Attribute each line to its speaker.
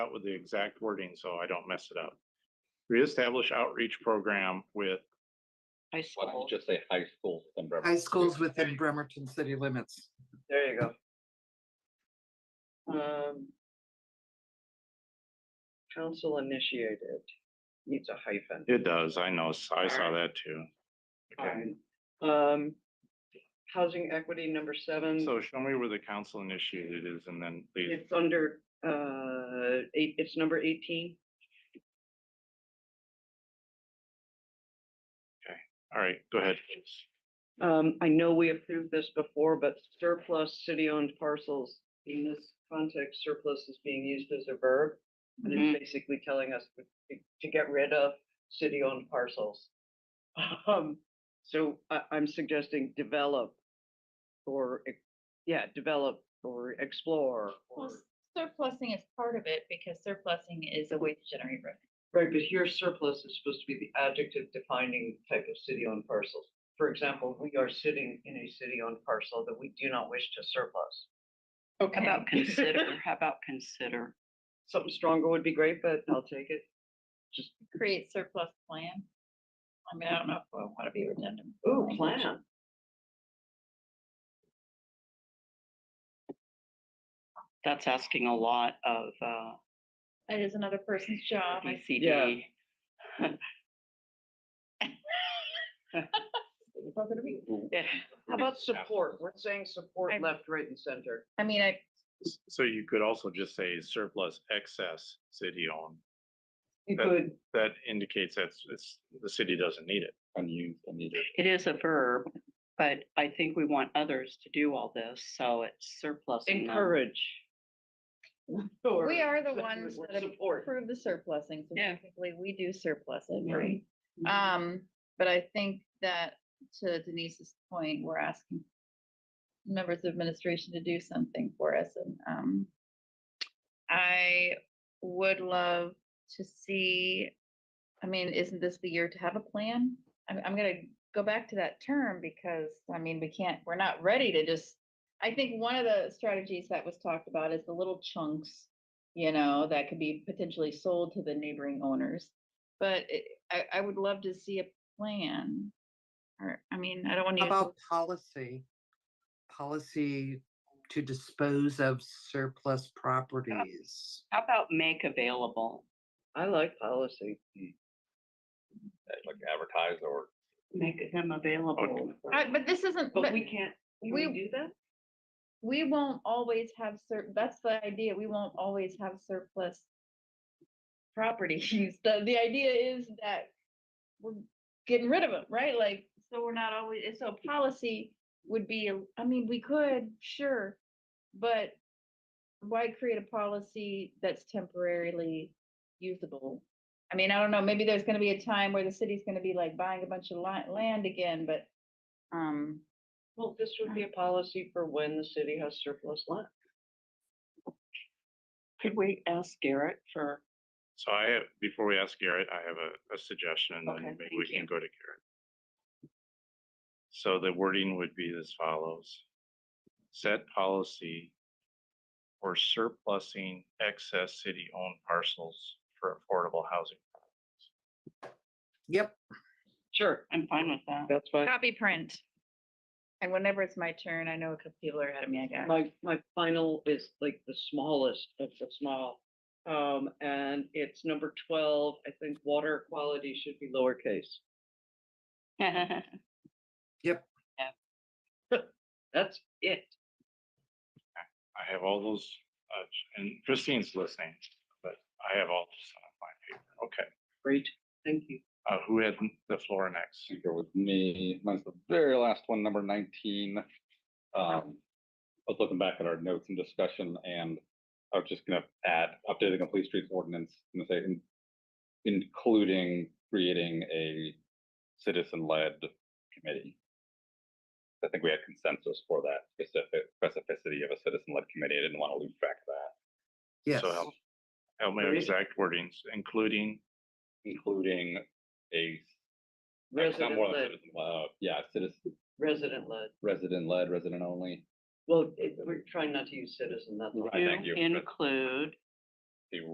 Speaker 1: out with the exact wording so I don't mess it up. Reestablish outreach program with,
Speaker 2: High
Speaker 3: Why don't
Speaker 2: school.
Speaker 3: you just say high schools? then Bremer-
Speaker 4: High schools within Bremerton city limits.
Speaker 5: There you go. Um. Council initiated needs a hyphen.
Speaker 1: it does, I know, I saw that too. Okay,
Speaker 5: Fine. Um, housing equity number seven,
Speaker 1: so show me where the council initiated is and then leave.
Speaker 5: it's under, uh, eight, it's number eighteen.
Speaker 1: All right, go ahead.
Speaker 5: Um, I know we approved this before, but surplus city-owned parcels, in this context, surplus is being used as a verb. And
Speaker 2: Mhm.
Speaker 5: it's basically telling us to- to get rid of city-owned parcels. Um, so I, I'm suggesting develop or, ex- yeah, develop or explore.
Speaker 6: Well,
Speaker 5: or-
Speaker 6: surplusing is part of it because surplusing is a way to generate revenue.
Speaker 5: Right, but here surplus is supposed to be the adjective defining type of city-owned parcels. For example, we are sitting in a city-owned parcel that we do not wish to surplus.
Speaker 2: How about
Speaker 5: Okay.
Speaker 2: consider, how about consider?
Speaker 5: Something stronger would be great, but I'll take it. Just,
Speaker 6: Create surplus plan. I mean, I don't know if I want to be redundant. with the
Speaker 5: ooh,
Speaker 6: language.
Speaker 5: plan.
Speaker 2: That's asking a lot of uh, E
Speaker 6: That is another person's job. I
Speaker 2: BCD. Yeah.
Speaker 5: How about support? We're saying support
Speaker 6: I-
Speaker 5: left, right and center.
Speaker 6: I mean, I,
Speaker 1: So you could also just say surplus excess city-owned.
Speaker 5: You
Speaker 1: That-
Speaker 5: could,
Speaker 1: That indicates that's, it's, the city doesn't need it.
Speaker 3: Unused, unneeded.
Speaker 2: It is a verb, but I think we want others to do all this, so it's surplus.
Speaker 5: encourage. Or-
Speaker 6: we are the
Speaker 5: or
Speaker 6: ones that
Speaker 5: Support.
Speaker 6: approve the surplusing. so
Speaker 2: Yeah.
Speaker 6: Technically, we do surplus it,
Speaker 2: Yeah.
Speaker 6: right? Um, but I think that to Denise's point, we're asking members of administration to do something for us and, um, I would love to see, I mean, isn't this the year to have a plan? I'm, I'm gonna go back to that term because, I mean, we can't, we're not ready to just, I think one of the strategies that was talked about is the little chunks, you know, that could be potentially sold to the neighboring owners. But it, I, I would love to see a plan. Or, I mean, I don't want
Speaker 4: How
Speaker 6: to
Speaker 4: about policy? Policy to dispose of surplus properties.
Speaker 2: How about make available?
Speaker 5: I like policy.
Speaker 3: Like advertise or
Speaker 2: Make them available.
Speaker 6: I, but this isn't, but
Speaker 2: can't,
Speaker 6: can we we-
Speaker 2: do that?
Speaker 6: we won't always have sur, that's the idea, we won't always have surplus properties. The, the idea is that we're getting rid of them, right? Like, so we're not always, and so policy would be, a- I mean, we could, sure, but why create a policy that's temporarily usable? I mean, I don't know, maybe there's gonna be a time where the city's gonna be like buying a bunch of li- land again, but, um,
Speaker 5: Well, this would be a policy for when the city has surplus land.
Speaker 2: Could we ask Garrett for
Speaker 1: So I have, before we ask Garrett, I have a, a suggestion and
Speaker 2: Okay,
Speaker 1: then maybe we
Speaker 2: thank
Speaker 1: can
Speaker 2: you.
Speaker 1: go to Garrett. So the wording would be as follows. Set policy for surplusing excess city-owned parcels for affordable housing.
Speaker 4: Yep,
Speaker 5: Sure,
Speaker 2: I'm fine with that.
Speaker 5: that's fine.
Speaker 6: Copy print. And whenever it's my turn, I know a couple people are ahead of me, I guess.
Speaker 5: My, my final is like the smallest of the small. Um, and it's number twelve. I think water quality should be lowercase. That's it.
Speaker 1: I have all those, uh, and Christine's listening, but I have all this on my paper. Okay,
Speaker 5: Great, thank you.
Speaker 1: uh, who had the floor next?
Speaker 3: you go with me. Mine's the very last one, number nineteen. Um, I was looking back at our notes and discussion and I was just gonna add updating the police streets ordinance and say in- including creating a citizen-led committee. I think we had consensus for that specific specificity of a citizen-led committee. I didn't want to lose track of that,
Speaker 4: yes.
Speaker 1: So help, help me with exact wordings, including,
Speaker 3: including a Uh, it's not
Speaker 5: Resident
Speaker 3: more than
Speaker 5: led,
Speaker 3: citizen, uh, Yeah, citizen,
Speaker 5: resident led.
Speaker 3: resident led, resident only.
Speaker 5: Well, it- we're trying not to use citizen, that's all.
Speaker 3: Right, thank
Speaker 2: To
Speaker 3: you.
Speaker 2: Include